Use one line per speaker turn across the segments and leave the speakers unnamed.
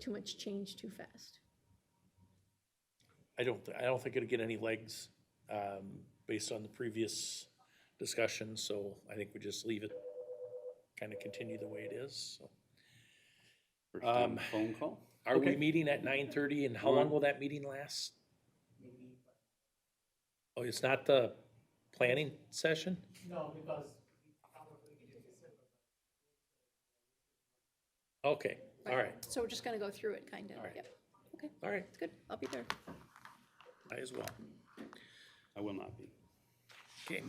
too much change too fast.
I don't, thi- I don't think it'll get any legs um, based on the previous discussion, so I think we just leave it, kind of continue the way it is. so.
First
Um,
time phone call?
Are we
Okay.
meeting at nine thirty and how long will that meeting last? Oh, it's not the planning session?
No, because
Okay, all right,
So we're just gonna go through it, kind of,
All right.
yeah. Okay,
all right,
it's good, I'll be there.
I as well.
I will not be.
Okay.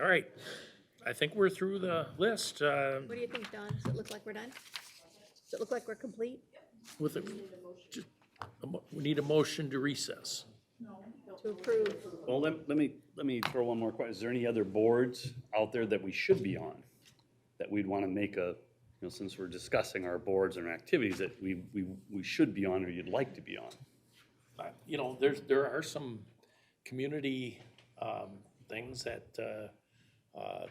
All right, I think we're through the list uh,
What do you think, Don? Does it look like we're done? Does it look like we're complete?
with, the- just- a mo- we need a motion to recess.
To approve?
Well, let, let me, let me throw one more question. Is there any other boards out there that we should be on? That we'd want to make a, you know, since we're discussing our boards and our activities that we, we, we should be on or you'd like to be on?
I- Uh, you know, there's, there are some community um, things that, uh, uh,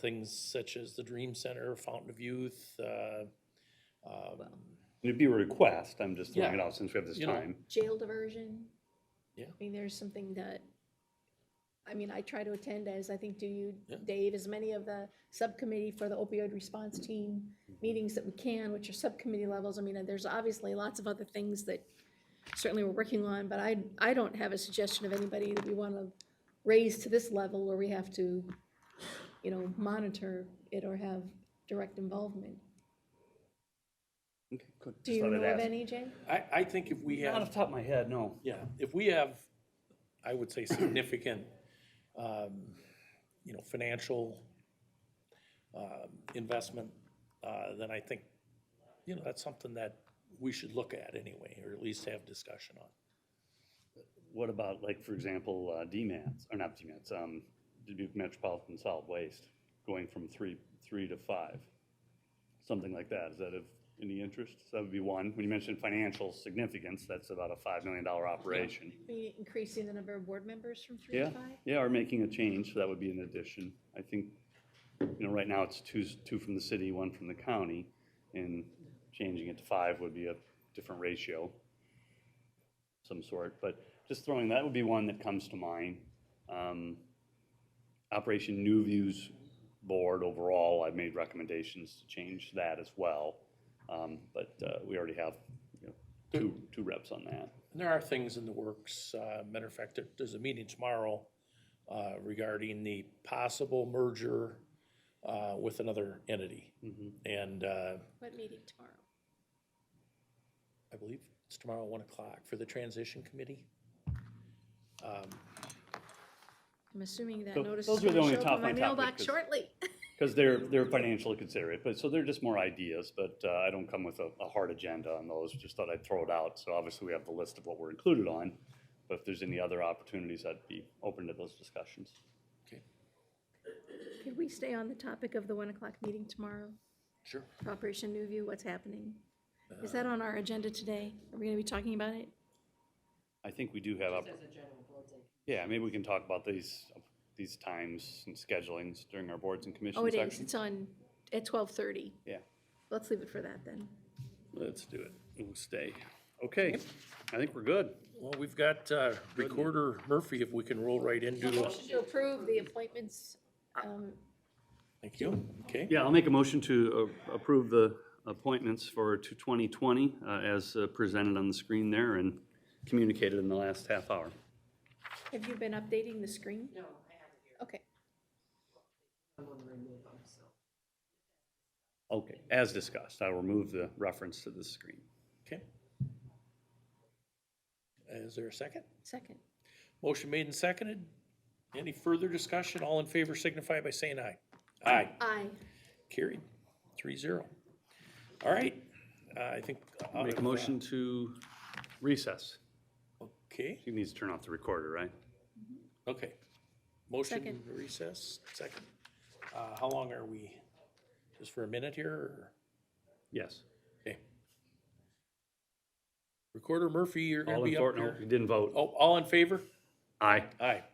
things such as the Dream Center, Fountain of Youth, uh,
It'd be a request, I'm just throwing it
Yeah.
out since we have this
You know.
time.
Jail diversion?
Yeah.
I mean, there's something that, I mean, I try to attend as, I think, do you,
Yeah.
Dave, as many of the subcommittee for the opioid response team
Mm-hmm.
meetings that we can, which are subcommittee levels. I mean, and there's obviously lots of other things that certainly we're working on, but I, I don't have a suggestion of anybody that we want to raise to this level where we have to, you know, monitor it or have direct involvement.
Okay, good.
Do
Just
you
thought
know
I'd
of
ask.
any, Jay?
I, I think if we
Not off
have,
the top of my head, no.
yeah, if we have, I would say significant, um, you know, financial um, investment, uh, then I think, you know, that's something that we should look at anyway, or at least have discussion on.
What about, like, for example, uh, DMATs, or not DMATs, um, Dubuque Metropolitan Solid Waste, going from three, three to five? Something like that, is that of any interest? So That would be one. When you mentioned financial significance, that's about a $5 million operation.
Be Increasing the number of board members from three to
Yeah,
five?
yeah, or making a change, so that would be an addition. I think, you know, right now it's two, two from the city, one from the county, and changing it to five would be a different ratio, some sort, but just throwing, that would be one that comes to mind. Um, Operation New Views Board overall, I've made recommendations to change that as well, um, but uh, we already have, you know, two, two reps on that.
And there are things in the works. uh, Matter of fact, there- there's a meeting tomorrow uh, regarding the possible merger uh, with another entity.
Mm-hmm.
And uh,
What meeting tomorrow?
I believe it's tomorrow, at 1 o'clock, for the transition committee. Um,
I'm assuming that
Tho-
notice
those
is
are the
gonna
only
show up
top
in my
line
mailbox
topics.
shortly.
Because they're, they're financially considerate, but, so they're just more ideas, but uh, I don't come with a, a hard agenda on those, just thought I'd throw it out. So obviously we have the list of what we're included on, but if there's any other opportunities, I'd be open to those discussions.
Okay,
Could we stay on the topic of the one o'clock meeting tomorrow?
sure.
Operation New View, what's happening? Is
Uh,
that on our agenda today? Are we gonna be talking about it?
I think we do have, opp- yeah, maybe we can talk about these, these times and schedulings during our boards and commission
Oh, it is,
sections.
it's on, at twelve thirty.
Yeah,
Let's leave it for that then.
let's do it. We'll stay. Okay, I think we're good.
Well, we've got uh, Recorder Murphy, if we can roll right into. uh,
To approve the appointments, um,
Thank you. Okay.
Yeah, I'll make a motion to uh, approve the appointments for to 2020 uh, as uh, presented on the screen there and communicated in the last half hour.
have you been updating the screen? No, I haven't. Okay,
Okay, as discussed, I'll remove the reference to the screen.
Okay. Is there a second?
second.
Motion made and seconded. Any further discussion? All in favor signify by saying aye. Aye.
Aye.
Carried, three zero. All right, uh, I think. out
Make a
of, uh,
motion to recess.
Okay,
She needs to turn off the recorder, right?
okay. Motion
Second.
recess, second. Uh, How long are we? Just for a minute here? or-
Yes.
Okay. Recorder Murphy, you're gonna
All in
be up
favor, no,
here.
you didn't vote.
Oh, all in favor?
Aye.
Aye.